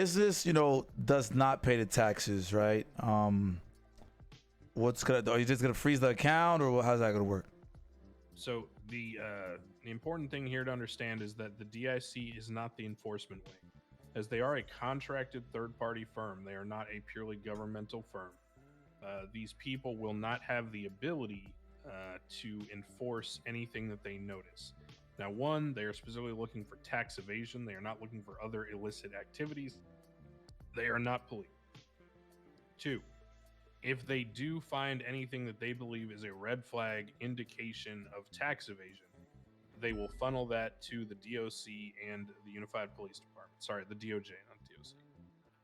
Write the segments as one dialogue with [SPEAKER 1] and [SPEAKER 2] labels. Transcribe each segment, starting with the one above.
[SPEAKER 1] business, you know, does not pay the taxes, right? Um, what's gonna? Are you just gonna freeze the account, or how's that gonna work?
[SPEAKER 2] So the uh, the important thing here to understand is that the DIC is not the enforcement wing, as they are a contracted third party firm. They are not a purely governmental firm. Uh, these people will not have the ability uh, to enforce anything that they notice. Now, one, they are specifically looking for tax evasion. They are not looking for other illicit activities. They are not police. Two, if they do find anything that they believe is a red flag indication of tax evasion, they will funnel that to the DOC and the Unified Police Department. Sorry, the DOJ, not DOC.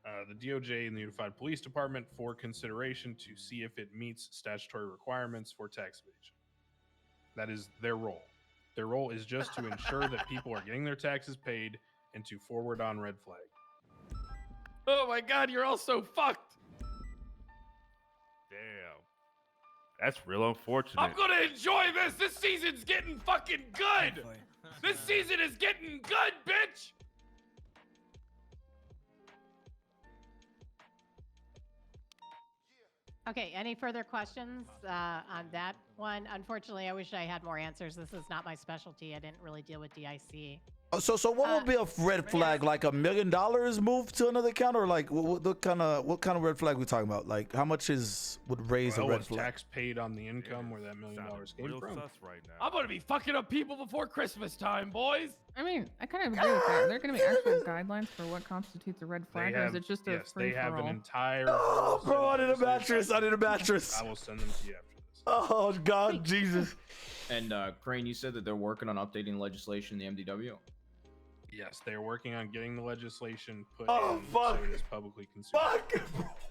[SPEAKER 2] Uh, the DOJ and the Unified Police Department for consideration to see if it meets statutory requirements for tax evasion. That is their role. Their role is just to ensure that people are getting their taxes paid and to forward on red flag.
[SPEAKER 3] Oh my god, you're all so fucked.
[SPEAKER 4] Damn. That's real unfortunate.
[SPEAKER 3] I'm gonna enjoy this. This season's getting fucking good. This season is getting good, bitch.
[SPEAKER 5] Okay, any further questions uh, on that one? Unfortunately, I wish I had more answers. This is not my specialty. I didn't really deal with DIC.
[SPEAKER 1] Oh, So, so what
[SPEAKER 5] Uh,
[SPEAKER 1] would be a red flag? Like a million dollars moved to another account, or like what, what, what kind of what kind of red flag we talking about? Like how much is would raise
[SPEAKER 2] Well,
[SPEAKER 1] a red
[SPEAKER 2] was
[SPEAKER 1] flag?
[SPEAKER 2] tax paid on the income
[SPEAKER 4] Yeah,
[SPEAKER 2] where that million
[SPEAKER 4] sounded
[SPEAKER 2] dollars came
[SPEAKER 4] real
[SPEAKER 2] from.
[SPEAKER 4] sus right now.
[SPEAKER 3] I'm gonna be fucking up people before Christmas time, boys.
[SPEAKER 6] I mean, I kind of agree with that. There are going to be actual guidelines for what constitutes a red flag, or
[SPEAKER 2] have-
[SPEAKER 6] is it just a
[SPEAKER 2] yes,
[SPEAKER 6] free
[SPEAKER 2] they
[SPEAKER 6] for
[SPEAKER 2] have an
[SPEAKER 6] all?
[SPEAKER 2] entire.
[SPEAKER 1] Oh,
[SPEAKER 2] whole set
[SPEAKER 1] bro,
[SPEAKER 2] of
[SPEAKER 1] I need a
[SPEAKER 2] legislation.
[SPEAKER 1] mattress. I need a mattress.
[SPEAKER 2] I will send them to you after this.
[SPEAKER 1] Oh God, Jesus.
[SPEAKER 7] And uh, Crane, you said that they're working on updating legislation in the MDW.
[SPEAKER 2] Yes, they are working on getting the legislation put
[SPEAKER 1] Oh,
[SPEAKER 2] in
[SPEAKER 1] fuck.
[SPEAKER 2] so it is publicly consumed.
[SPEAKER 1] Fuck.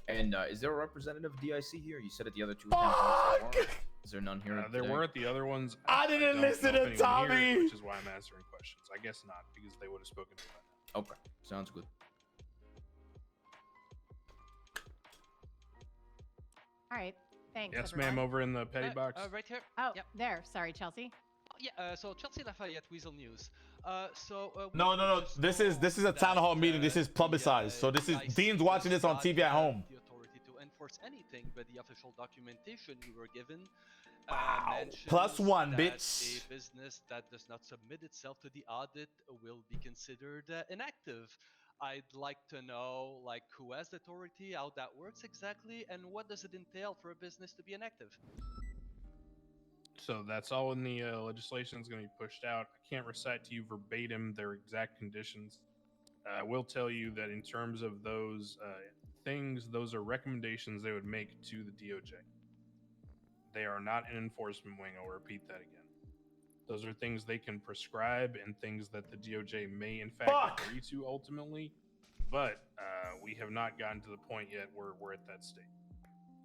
[SPEAKER 7] And uh, is there a representative of DIC here? You said at the other two accounts there weren't. Is there none here?
[SPEAKER 2] Uh, there
[SPEAKER 7] today?
[SPEAKER 2] weren't the other ones.
[SPEAKER 1] I didn't
[SPEAKER 2] don't
[SPEAKER 1] listen
[SPEAKER 2] know
[SPEAKER 1] to
[SPEAKER 2] if anyone here,
[SPEAKER 1] Tommy.
[SPEAKER 2] which is why I'm answering questions. I guess not, because they would have spoken to me. by now.
[SPEAKER 7] Okay, sounds good.
[SPEAKER 5] All right, thanks.
[SPEAKER 2] Yes,
[SPEAKER 5] everyone.
[SPEAKER 2] ma'am, over in the petty
[SPEAKER 8] Uh,
[SPEAKER 2] box.
[SPEAKER 8] Uh, right here.
[SPEAKER 5] Oh,
[SPEAKER 8] Yep.
[SPEAKER 5] there. Sorry, Chelsea.
[SPEAKER 8] Oh, Yeah. Uh, so Chelsea Lafayette Weasel News. Uh, so uh, we
[SPEAKER 1] No, no, no.
[SPEAKER 8] just
[SPEAKER 1] This is- this is a
[SPEAKER 8] know
[SPEAKER 1] town hall
[SPEAKER 8] that,
[SPEAKER 1] meeting. This
[SPEAKER 8] uh,
[SPEAKER 1] is
[SPEAKER 8] the,
[SPEAKER 1] publicized.
[SPEAKER 8] uh,
[SPEAKER 1] So this is-
[SPEAKER 8] DIC
[SPEAKER 1] Dean's watching
[SPEAKER 8] does
[SPEAKER 1] this on
[SPEAKER 8] not
[SPEAKER 1] TV at
[SPEAKER 8] have
[SPEAKER 1] home.
[SPEAKER 8] The authority to enforce anything, but the official documentation we were given. uh,
[SPEAKER 1] Wow.
[SPEAKER 8] mentions
[SPEAKER 1] Plus one,
[SPEAKER 8] that
[SPEAKER 1] bitch.
[SPEAKER 8] A business that does not submit itself to the audit will be considered uh, inactive. I'd like to know, like, who has the authority, how that works exactly, and what does it entail for a business to be inactive?
[SPEAKER 2] So that's all in the uh, legislation is going to be pushed out. I can't recite to you verbatim their exact conditions. Uh, I will tell you that in terms of those uh, things, those are recommendations they would make to the DOJ. They are not an enforcement wing. I'll repeat that again. Those are things they can prescribe and things that the DOJ may, in fact,
[SPEAKER 1] Fuck.
[SPEAKER 2] agree to ultimately. But uh, we have not gotten to the point yet where we're at that state.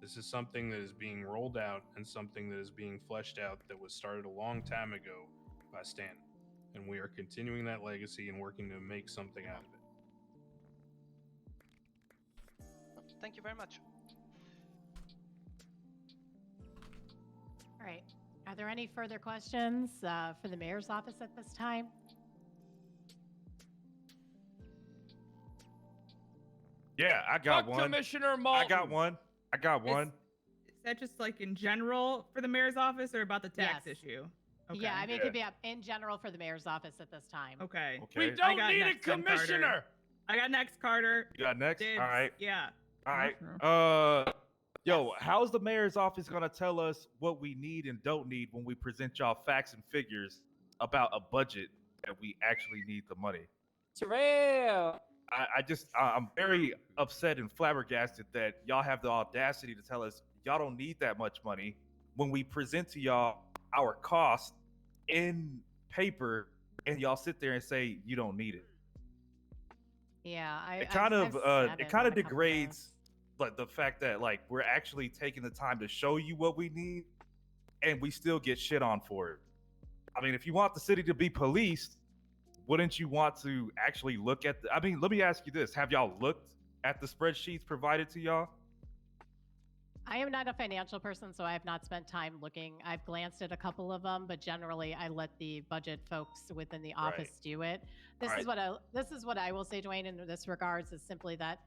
[SPEAKER 2] This is something that is being rolled out and something that is being fleshed out that was started a long time ago by Stan. And we are continuing that legacy and working to make something out of it.
[SPEAKER 8] Thank you very much.
[SPEAKER 5] All right. Are there any further questions uh, for the mayor's office at this time?
[SPEAKER 4] yeah, I got
[SPEAKER 3] Fuck
[SPEAKER 4] one.
[SPEAKER 3] Commissioner Malton.
[SPEAKER 4] I got one. I got
[SPEAKER 6] Is-
[SPEAKER 4] one.
[SPEAKER 6] Is that just like in general for the mayor's office, or about the tax
[SPEAKER 5] Yes.
[SPEAKER 6] issue?
[SPEAKER 5] Yeah, I mean, it
[SPEAKER 4] Yeah.
[SPEAKER 5] could be up in general for the mayor's office at this time.
[SPEAKER 6] Okay.
[SPEAKER 4] Okay.
[SPEAKER 3] We
[SPEAKER 6] I
[SPEAKER 3] don't
[SPEAKER 6] got
[SPEAKER 3] need a
[SPEAKER 6] next one, Carter.
[SPEAKER 3] commissioner.
[SPEAKER 6] I got next, Carter.
[SPEAKER 4] you got next.
[SPEAKER 6] Dibs.
[SPEAKER 4] All right.
[SPEAKER 6] Yeah.
[SPEAKER 4] All right.
[SPEAKER 6] Sure.
[SPEAKER 4] Uh, yo, how's the mayor's office gonna tell us what we need and don't need when we present y'all facts and figures about a budget that we actually need the money?
[SPEAKER 9] Terrell.
[SPEAKER 4] I, I just, I, I'm very upset and flabbergasted that y'all have the audacity to tell us y'all don't need that much money when we present to y'all our cost in paper, and y'all sit there and say you don't need it.
[SPEAKER 5] Yeah, I.
[SPEAKER 4] it
[SPEAKER 5] I've-
[SPEAKER 4] kind of
[SPEAKER 5] I've
[SPEAKER 4] uh
[SPEAKER 5] said
[SPEAKER 4] it
[SPEAKER 5] on
[SPEAKER 4] kind
[SPEAKER 5] a
[SPEAKER 4] of
[SPEAKER 5] couple
[SPEAKER 4] degrades like the fact that like we're actually taking the time to show you what we need and we still get shit on for it i mean if you want the city to be policed wouldn't you want to actually look at the, i mean let me ask you this have y'all looked at the spreadsheets provided to y'all
[SPEAKER 5] I am not a financial person, so I have not spent time looking. I've glanced at a couple of them, but generally, I let the budget folks within the office do it. This
[SPEAKER 4] Right.
[SPEAKER 5] is what I this is what I will say, Dwayne, in this regards is simply that